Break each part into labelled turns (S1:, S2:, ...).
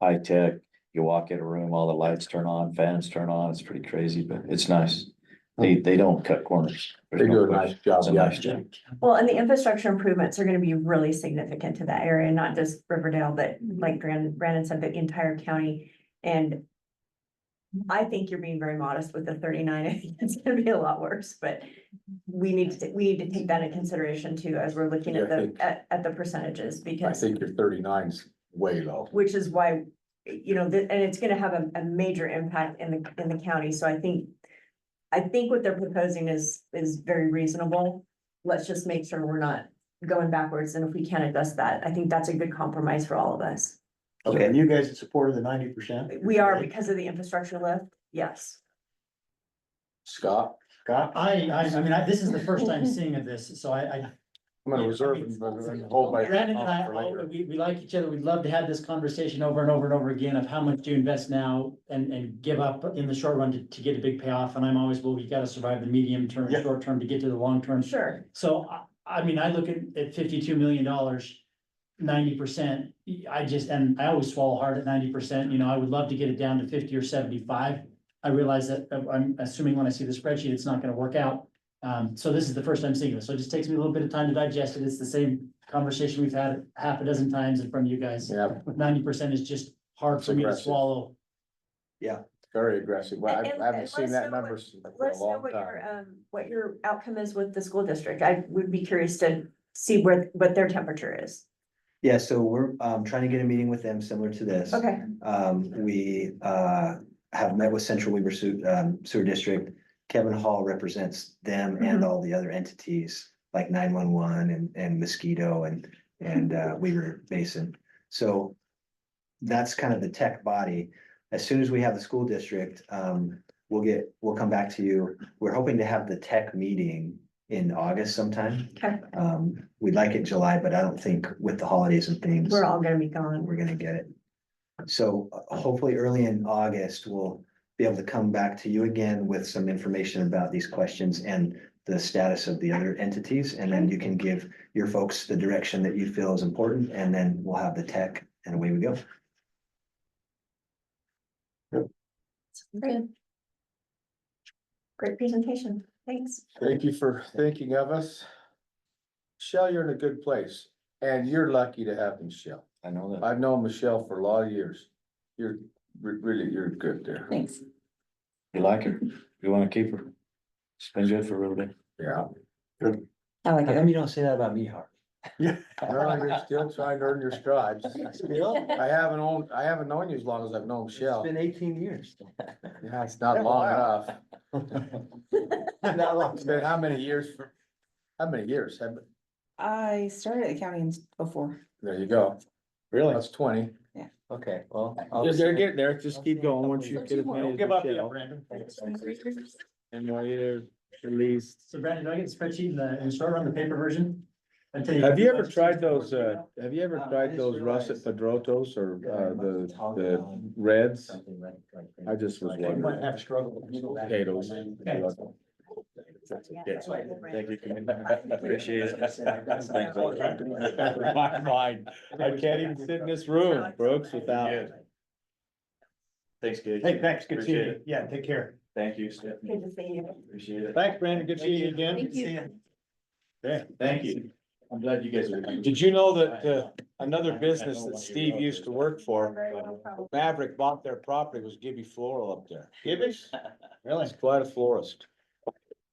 S1: high tech. You walk in a room, all the lights turn on, fans turn on. It's pretty crazy, but it's nice. They, they don't cut corners. There's
S2: They
S1: no
S2: do a
S1: question.
S2: nice job,
S1: It's a nice
S2: yeah.
S1: job.
S3: Well, and the infrastructure improvements are gonna be really significant to that area, not just Riverdale, but like Brandon, Brandon said, the entire county and. I think you're being very modest with the thirty-nine. I think it's gonna be a lot worse, but we need to, we need to take that into consideration too, as we're looking at
S2: Yeah, I
S3: the,
S2: think-
S3: at, at the percentages,
S2: I
S3: because.
S2: think your 39 is way low.
S3: Which is why, you know, th- and it's gonna have a, a major impact in the, in the county, so I think. I think what they're proposing is, is very reasonable. Let's just make sure we're not going backwards, and if we can adjust that, I think that's a good compromise for all of us.
S4: Okay, and you guys in support of the ninety percent?
S3: We are, because of the infrastructure lift, yes.
S2: Scott?
S4: Scott?
S5: I, I, I mean, I, this is the first time seeing of this, so I, I,
S2: I'm gonna reserve and and hold my.
S5: Brandon and I,
S2: for later.
S5: all- we, we like each other, we'd love to have this conversation over and over and over again of how much do you invest now and, and give up in the short run to, to get a big payoff, and I'm always, well, you gotta survive the medium term,
S4: Yeah.
S5: short term to get to the long term.
S3: Sure.
S5: So I, I mean, I look at, at fifty-two million dollars, ninety percent, I just, and I always swallow hard at ninety percent, you know, I would love to get it down to fifty or seventy-five. I realize that, uh, I'm assuming when I see the spreadsheet, it's not gonna work out. Um, so this is the first time seeing it, so it just takes me a little bit of time to digest it, it's the same conversation we've had half a dozen times in front of you guys.
S2: Yeah,
S5: Ninety percent is just hard for me to
S2: Aggressive.
S5: swallow.
S2: very aggressive. Well,
S3: And-
S2: I-
S3: and-
S2: I haven't
S3: and
S2: seen
S3: let's
S2: that
S3: know
S2: number
S3: Let
S2: for a
S3: us know
S2: long
S3: what
S2: time.
S3: your, um, what your outcome is with the school district, I would be curious to see where, what their temperature is.
S4: Yeah, so we're um trying to get a meeting with them similar to this.
S3: Okay,
S4: Um, we uh have met with Central Weaver Sewer um Sewer District. Kevin Hall represents them
S3: Mm-hmm.
S4: and all the other entities like nine one one and and mosquito and and
S3: Mm-hmm.
S4: uh Weaver Basin. So that's kind of the tech body. As soon as we have the school district, um, we'll get, we'll come back to you. We're hoping to have the tech meeting in August sometime.
S3: okay,
S4: Um, we'd like it July, but I don't think with the holidays and things
S3: we're all gonna be gone.
S4: we're gonna get it. So uh, hopefully early in August, we'll be able to come back to you again with some information about these questions and the status of the other entities, and then you can give your folks the direction that you feel is important, and then we'll have the tech, and away we go.
S3: Great. Great presentation, thanks.
S2: Thank you for thinking of us. Michelle, you're in a good place and you're lucky to have Michelle.
S1: I know that.
S2: I've known Michelle for a lot of years. You're re- really, you're good there.
S6: Thanks.
S1: You like her. You wanna keep her. She's been good for Riverdale.
S2: Yeah.
S6: I like it.
S4: you don't say that about me, Harvey?
S2: Well, you're still trying to earn your stripes. I haven't owned, I haven't known you as long as I've known Michelle.
S4: eighteen years.
S2: Yeah, it's not long enough.
S4: Not long.
S2: It's been how many years? for- How many years? Have-
S6: I started at the county in oh-four.
S2: There you go.
S7: Really?
S2: That's twenty.
S4: Okay, well.
S7: Yeah, They're getting there, just keep going, once you get as many as Michelle,
S5: Brandon.
S7: and while you're at least.
S5: So Brandon, do I get the spreadsheet in the, in the short run, the paper version? Until
S7: Have you ever tried those, uh, have you ever
S4: Uh, I
S7: tried
S4: just
S7: those russet
S4: realized-
S7: padrotos or, uh, the, the
S4: Talking
S7: reds?
S4: Something like- like-
S7: I just was
S5: You might
S7: wondering.
S5: have struggled.
S7: Potatoes.
S5: Okay.
S7: Yes, thank you, Commissioner.
S4: Appreciate it.
S7: Thanks, Brooks. My mind, I can't even sit in this room, Brooks, without.
S1: Thanks, Gage.
S5: Hey, thanks, good seeing
S1: Appreciate
S5: you, yeah, take care.
S1: Thank you, Stephanie.
S3: Good to see you.
S1: Appreciate it.
S7: Thanks, Brandon, good seeing you again. Yeah.
S1: Thank you. I'm glad you guys are.
S7: Did you know that, uh, another business that Steve used to work for, Maverick bought their property, was Gibby Floral up there. Gibby's? Really? He's quite a florist.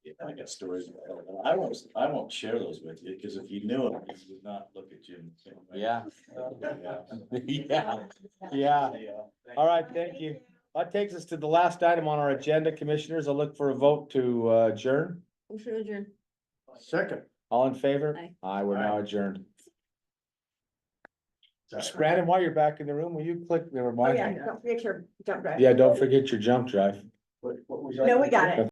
S1: Yeah, I got stories. about that. I won't, I won't share those with you, because if you knew it, you would not look at you. in the same way.
S7: Yeah,
S1: Yeah. uh,
S7: yeah, yeah. All right, thank you. That takes us to the last item on our agenda, commissioners. I'll look for a vote to uh, adjourn.
S2: Second.
S7: All in favor?
S6: Aye.
S7: Aye, we're now adjourned. Brandon, while you're back in the room, will you click, never
S3: Oh,
S7: mind.
S3: yeah, don't forget your jump drive.
S7: Yeah, don't forget your jump drive.
S3: No, we got it.